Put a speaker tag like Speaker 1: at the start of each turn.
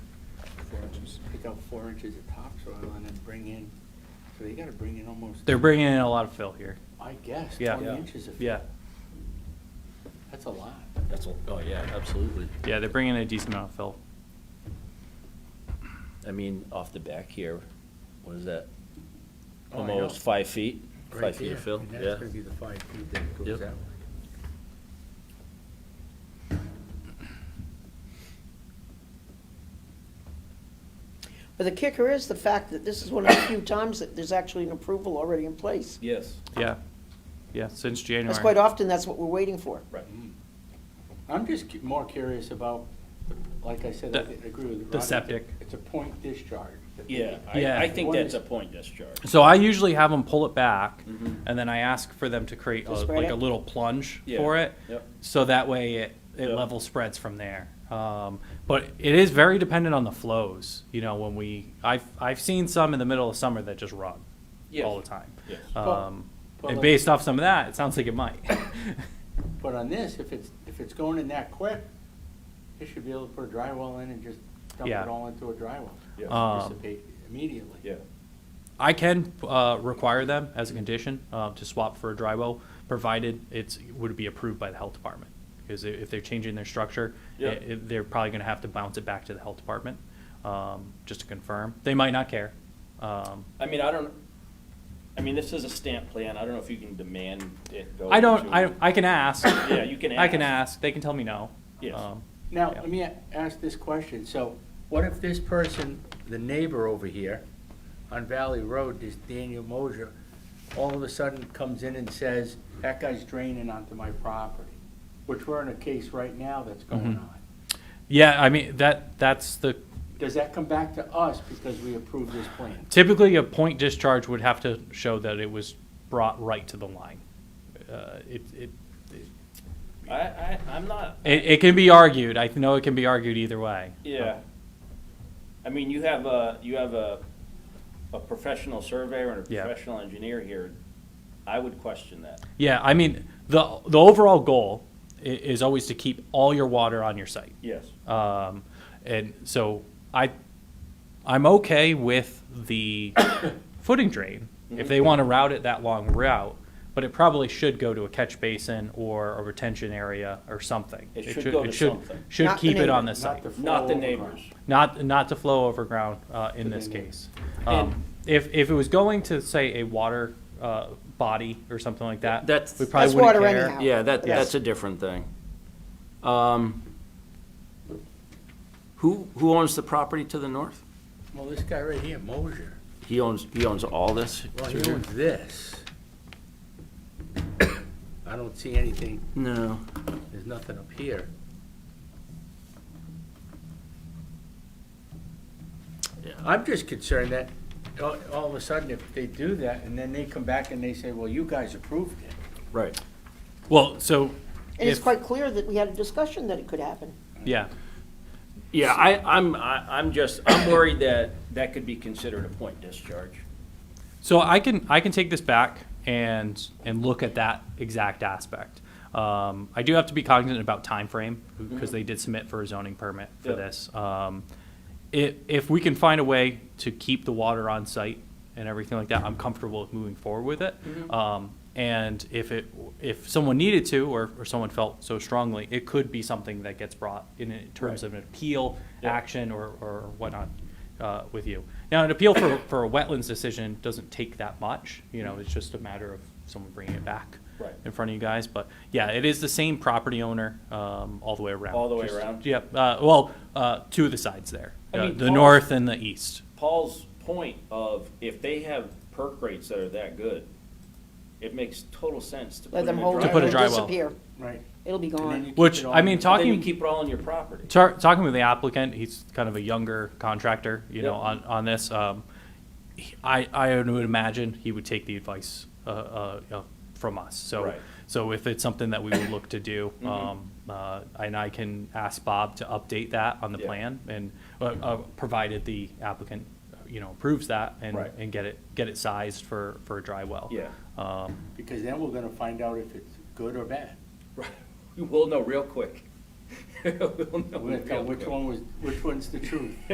Speaker 1: take out four inches of topsoil and then bring in, so they gotta bring in almost.
Speaker 2: They're bringing in a lot of fill here.
Speaker 1: I guess,
Speaker 2: Yeah.
Speaker 1: twenty
Speaker 2: Yeah.
Speaker 1: inches of.
Speaker 2: Yeah,
Speaker 1: That's a lot.
Speaker 3: That's, a- oh, yeah, absolutely.
Speaker 2: yeah, they're bringing in a decent amount of fill.
Speaker 3: I mean, off the back here, what is that?
Speaker 1: Oh, I know.
Speaker 3: Almost five feet,
Speaker 1: Right
Speaker 3: five feet
Speaker 1: there,
Speaker 3: of fill,
Speaker 1: and
Speaker 3: yeah.
Speaker 1: That's gonna be the five feet that goes
Speaker 3: Yep.
Speaker 1: that way.
Speaker 4: But the kicker is the fact that this is one of the few times that there's actually an approval already in place.
Speaker 3: Yes.
Speaker 2: Yeah, yeah, since
Speaker 4: That's quite
Speaker 2: January.
Speaker 4: often, that's what we're waiting for.
Speaker 3: Right.
Speaker 1: I'm just cu- more curious about, like I said, I
Speaker 2: The-
Speaker 1: thi- I agree with Rodney.
Speaker 2: the septic.
Speaker 1: It's a point discharge.
Speaker 3: Yeah,
Speaker 2: Yeah.
Speaker 3: I, I think
Speaker 1: One
Speaker 3: that's
Speaker 1: is-
Speaker 3: a point discharge.
Speaker 2: So I usually have them pull it back and then I ask for them to create a-
Speaker 4: To spread
Speaker 2: like a
Speaker 4: it?
Speaker 2: little plunge
Speaker 3: Yeah,
Speaker 2: for it.
Speaker 3: yep.
Speaker 2: So that way it, it
Speaker 3: Yep.
Speaker 2: level spreads from there. Um, but it is very dependent on the flows, you know, when we, I've, I've seen some in the middle of summer that just run
Speaker 3: Yes.
Speaker 2: all the time.
Speaker 3: Yes.
Speaker 1: But-
Speaker 2: Um,
Speaker 1: but
Speaker 2: and
Speaker 1: like-
Speaker 2: based off some of that, it sounds like it might.
Speaker 1: But on this, if it's, if it's going in that quick, you should be able to put a drywall in and just dump
Speaker 2: Yeah.
Speaker 1: it all into a drywall.
Speaker 3: Yeah.
Speaker 2: Um,
Speaker 1: Dissipate immediately.
Speaker 3: Yeah,
Speaker 2: I can uh, require them as a condition uh, to swap for a dry well, provided it's would be approved by the health department. Because i- if they're changing their structure, i-
Speaker 3: Yeah.
Speaker 2: i- they're probably going to have to bounce it back to the health department um, just to confirm. They might not care. Um,
Speaker 3: I mean, I don't, I mean, this is a stamp plan, I don't know if you can demand it go.
Speaker 2: I don't.
Speaker 3: to-
Speaker 2: I, I can ask.
Speaker 3: Yeah, you can
Speaker 2: I can
Speaker 3: ask.
Speaker 2: ask. They can tell me no. Um,
Speaker 3: Yes.
Speaker 1: Now,
Speaker 2: Yeah.
Speaker 1: let me a- ask this question, so what if this person, the neighbor over here on Valley Road, this Daniel Mosier, all of a sudden comes in and says, that guy's draining onto my property, which we're in a case right now that's going
Speaker 2: Mhm.
Speaker 1: on.
Speaker 2: yeah. I mean that. That's the
Speaker 1: Does that come back to us because we approved this plan?
Speaker 2: Typically, a point discharge would have to show that it was brought right to the line. Uh, It, it,
Speaker 3: I, I, I'm not,
Speaker 2: it it can be argued, I know it can be argued either way.
Speaker 3: yeah. I mean, you have a, you have a, a professional surveyor and a
Speaker 2: Yeah.
Speaker 3: professional engineer here, I would question that.
Speaker 2: Yeah, I mean, the, the overall goal i- is always to keep all your water on your site.
Speaker 3: Yes.
Speaker 2: Um, and so I, I'm okay with the footing drain
Speaker 3: Mm-hmm.
Speaker 2: if they want to route it that long route, but it probably should go to a catch basin or a retention area or something.
Speaker 3: It should go to something.
Speaker 2: Should
Speaker 4: Not the
Speaker 2: keep it on
Speaker 4: neighbor,
Speaker 2: the site,
Speaker 3: Not the
Speaker 1: flow
Speaker 3: neighbors.
Speaker 2: not not to flow over ground uh, in
Speaker 1: To
Speaker 2: this
Speaker 1: the neighbor.
Speaker 2: case. Um, if if it was going to say a water uh, body or something like that,
Speaker 3: That's-
Speaker 2: we probably
Speaker 4: That's
Speaker 2: wouldn't
Speaker 4: water
Speaker 2: care.
Speaker 4: anyhow.
Speaker 3: Yeah, that,
Speaker 2: Yes.
Speaker 3: that's a different thing. Um, Who, who owns the property to the north?
Speaker 1: Well, this guy right here, Mosier,
Speaker 3: He owns, he owns all this?
Speaker 1: well,
Speaker 3: through
Speaker 1: he
Speaker 3: here?
Speaker 1: owns this. I don't see anything,
Speaker 3: No.
Speaker 1: there's nothing up here.
Speaker 3: Yeah.
Speaker 1: I'm just concerned that, all, all of a sudden, if they do that, and then they come back and they say, well, you guys approved it.
Speaker 3: Right.
Speaker 2: Well, so
Speaker 4: And it's
Speaker 2: If-
Speaker 4: quite clear that we had a discussion that it could happen.
Speaker 2: yeah,
Speaker 3: Yeah, I, I'm, I- I'm just, I'm worried that that could be considered a point discharge.
Speaker 2: So I can I can take this back and and look at that exact aspect. Um, I do have to be cognizant about time frame because they did submit for a zoning permit for
Speaker 3: Yeah.
Speaker 2: this. Um, if if we can find a way to keep the water on site and everything like that, I'm comfortable with moving forward with it.
Speaker 3: Mm-hmm.
Speaker 2: Um, and if it if someone needed to or, or someone felt so strongly, it could be something that gets brought in, in terms
Speaker 3: Right.
Speaker 2: of an appeal
Speaker 3: Yeah.
Speaker 2: action or, or whatnot uh, with you. Now, an appeal for, for a wetlands decision doesn't take that much, you know, it's just a matter of someone bringing it back
Speaker 3: Right.
Speaker 2: in front of you guys, but yeah, it is the same property owner um, all the way around.
Speaker 3: All the way
Speaker 2: Just-
Speaker 3: around?
Speaker 2: Yep, uh, well, uh, two of the sides there,
Speaker 3: I
Speaker 2: Uh,
Speaker 3: mean,
Speaker 2: the
Speaker 3: Paul's-
Speaker 2: north and the east.
Speaker 3: Paul's point of if they have perk rates that are that good, it makes total sense to put
Speaker 4: Let
Speaker 3: in a
Speaker 4: them hold
Speaker 2: To
Speaker 4: it
Speaker 2: put a
Speaker 4: and
Speaker 2: dry
Speaker 3: driveway.
Speaker 2: well.
Speaker 4: disappear.
Speaker 1: Right.
Speaker 4: It'll be gone.
Speaker 2: Which, I mean,
Speaker 3: But Then you
Speaker 2: talking.
Speaker 3: keep it all on your property.
Speaker 2: Tar- talking with the applicant, he's kind of a younger contractor, you know,
Speaker 3: Yep.
Speaker 2: on, on this. Um, he- I, I would imagine he would take the advice, uh, uh, uh, from us. So,
Speaker 3: Right.
Speaker 2: so if it's something that we would look to do,
Speaker 3: Mhm.
Speaker 2: um, uh, and I can ask Bob to update that on the
Speaker 3: Yeah.
Speaker 2: plan and, uh, uh, provided the applicant, you know, approves that and,
Speaker 3: Right.
Speaker 2: and get it, get it sized for, for a dry well.
Speaker 3: Yeah.
Speaker 2: Um,
Speaker 1: Because then we're gonna find out if it's good or bad.
Speaker 3: We'll know real quick. We'll know
Speaker 1: We're gonna tell
Speaker 3: real
Speaker 1: which
Speaker 3: quick.
Speaker 1: one was, which one's the truth.